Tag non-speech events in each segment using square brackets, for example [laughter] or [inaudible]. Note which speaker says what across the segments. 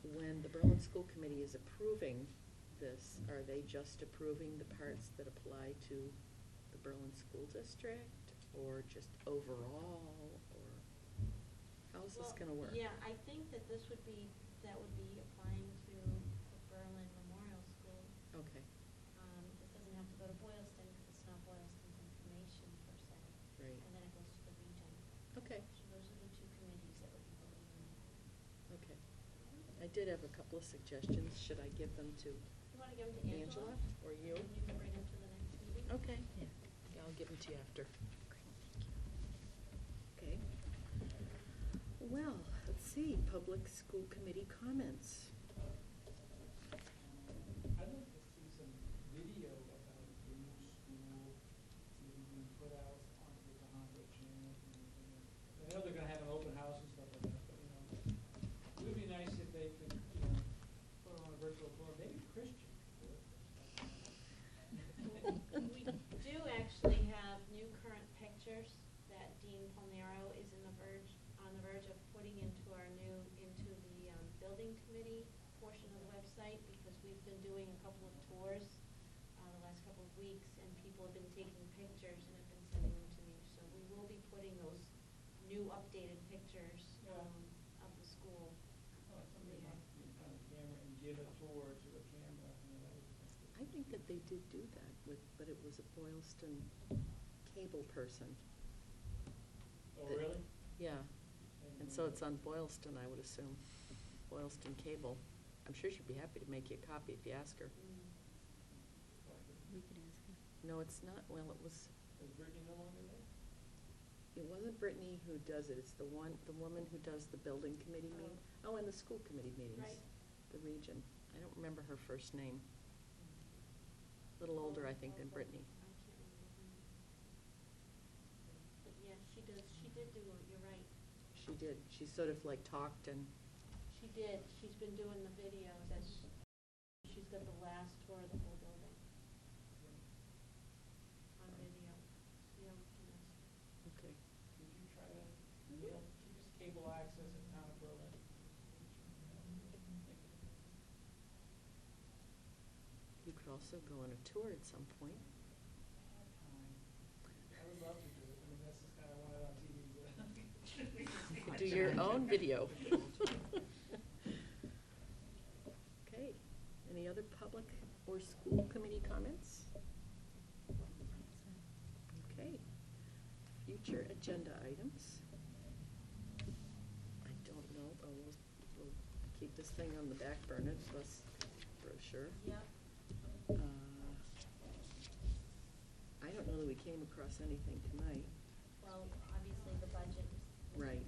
Speaker 1: when the Berlin School Committee is approving this, are they just approving the parts that apply to the Berlin School District? Or just overall, or how's this gonna
Speaker 2: Well,
Speaker 1: work?
Speaker 2: Yeah, I think that this would be, that would be applying to the Berlin Memorial School.
Speaker 1: Okay,
Speaker 2: Um, it doesn't have to go to Boylston, because it's not Boylston's information per se.
Speaker 1: Right.
Speaker 2: And then it goes to the region.
Speaker 1: okay,
Speaker 2: So those are the two committees that would be voting on it.
Speaker 1: okay. I did have a couple of suggestions. Should I give them to
Speaker 2: You wanna give them to Angela?
Speaker 1: Angela or you?
Speaker 2: And you can bring them to the next meeting?
Speaker 1: Okay. Yeah, I'll give them to you after. Okay. Well, let's see, public school committee comments.
Speaker 3: I'd like to see some video about the new school, maybe being put out onto the Hondo channel. and everything. I know they're gonna have an open house and stuff like that, but, you know, it would be nice if they could, you know, put on a virtual forum, maybe Christian. could.
Speaker 2: We do actually have new current pictures that Dean Palmero is in the verge, on the verge of putting into our new, into the um, building committee portion of the website, because we've been doing a couple of tours uh, the last couple of weeks, and people have been taking pictures and have been sending them to me, so we will be putting those new updated pictures
Speaker 3: Yeah.
Speaker 2: um, of the school.
Speaker 3: Uh, Somebody might be in front of the camera and give a tour to a camera, you know, that would be good.
Speaker 1: I think that they did do that with, but it was a Boylston cable person.
Speaker 3: Oh, really?
Speaker 1: Yeah, and
Speaker 3: Maybe
Speaker 1: so
Speaker 3: we-
Speaker 1: it's on Boylston, I would assume, Boylston Cable. I'm sure she'd be happy to make you a copy if you ask her.
Speaker 4: We could ask her.
Speaker 1: No, it's not, well, it was,
Speaker 3: Is Brittany no longer there?
Speaker 1: it wasn't Brittany who does it, it's the one, the woman who does the building committee meeting. Oh, and the school committee meetings,
Speaker 2: Right.
Speaker 1: the region. I don't remember her first name. Little older, I think, than Brittany.
Speaker 2: I can't remember her name. But yeah, she does, she did do, it, you're right.
Speaker 1: She did, she sort of like talked and,
Speaker 2: She did, she's been doing the videos, and she's got the last tour of the whole building on video. Yeah, we can ask her.
Speaker 1: okay.
Speaker 3: Did you try to, you know, keep this cable access in town of Berlin?
Speaker 1: You could also go on a tour at some point.
Speaker 3: I would love to do it, I mean, that's just kind of wanted on TV,
Speaker 1: You
Speaker 3: but. [laughs]
Speaker 1: could do your own video. [laughs] Okay, any other public or school committee comments? Okay, future agenda items. I don't know, but we'll, we'll keep this thing on the back burner, plus brochure.
Speaker 2: Yep.
Speaker 1: Uh, I don't know that we came across anything tonight.
Speaker 2: Well, obviously, the budget.
Speaker 1: Right.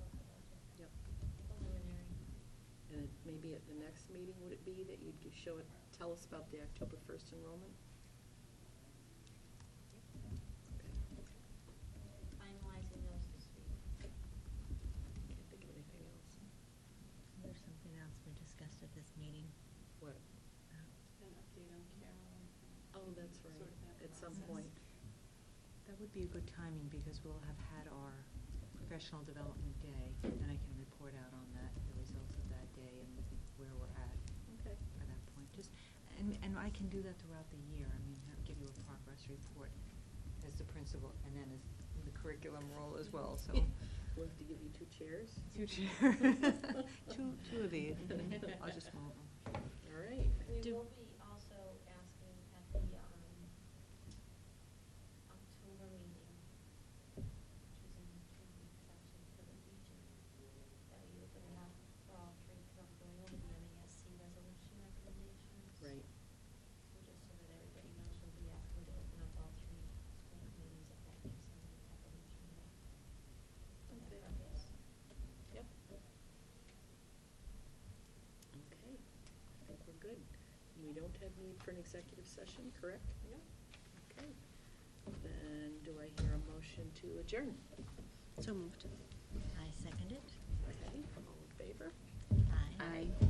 Speaker 2: Talking about the budget.
Speaker 1: Yep.
Speaker 2: Preliminary.
Speaker 1: And it- maybe at the next meeting, would it be that you'd give- show it, tell us about the October first enrollment? Okay.
Speaker 2: Finalizing those this week.
Speaker 1: Can't think of anything else.
Speaker 4: There's something else we discussed at this meeting.
Speaker 1: What?
Speaker 4: Uh,
Speaker 5: an update on Carol.
Speaker 1: Oh, that's
Speaker 5: Sort of
Speaker 1: right,
Speaker 5: that
Speaker 1: at some
Speaker 5: process.
Speaker 1: point.
Speaker 6: That would be a good timing because we'll have had our professional development day and I can report out on that, the results of that day and where we're at
Speaker 1: Okay.
Speaker 6: by that point. Just, and, and I can do that throughout the year. I mean, I'll give you a progress report as the principal and then as the curriculum role as well, so.
Speaker 1: We'll have to give you two chairs.
Speaker 6: Two chair, [laughs] two, two of each. I'll just move them.
Speaker 1: All right.
Speaker 2: We
Speaker 1: Do-
Speaker 2: will be also asking at the, um, October meeting, which is in two weeks actually for the region, that we open it up for all three, because I'm going over the MASC resolution recommendations.
Speaker 1: Right,
Speaker 2: So just so that everybody knows, we'll be asking to open up all three school committees if that gives them the resolution. for
Speaker 1: Okay.
Speaker 2: that purpose.
Speaker 1: yep. Okay, I think we're good. We don't have need for an executive session, correct?
Speaker 2: Yep.
Speaker 1: Okay. Then do I hear a motion to adjourn?
Speaker 4: So moved. I second it.
Speaker 1: Okay, all in favor?
Speaker 4: Aye.
Speaker 5: Aye.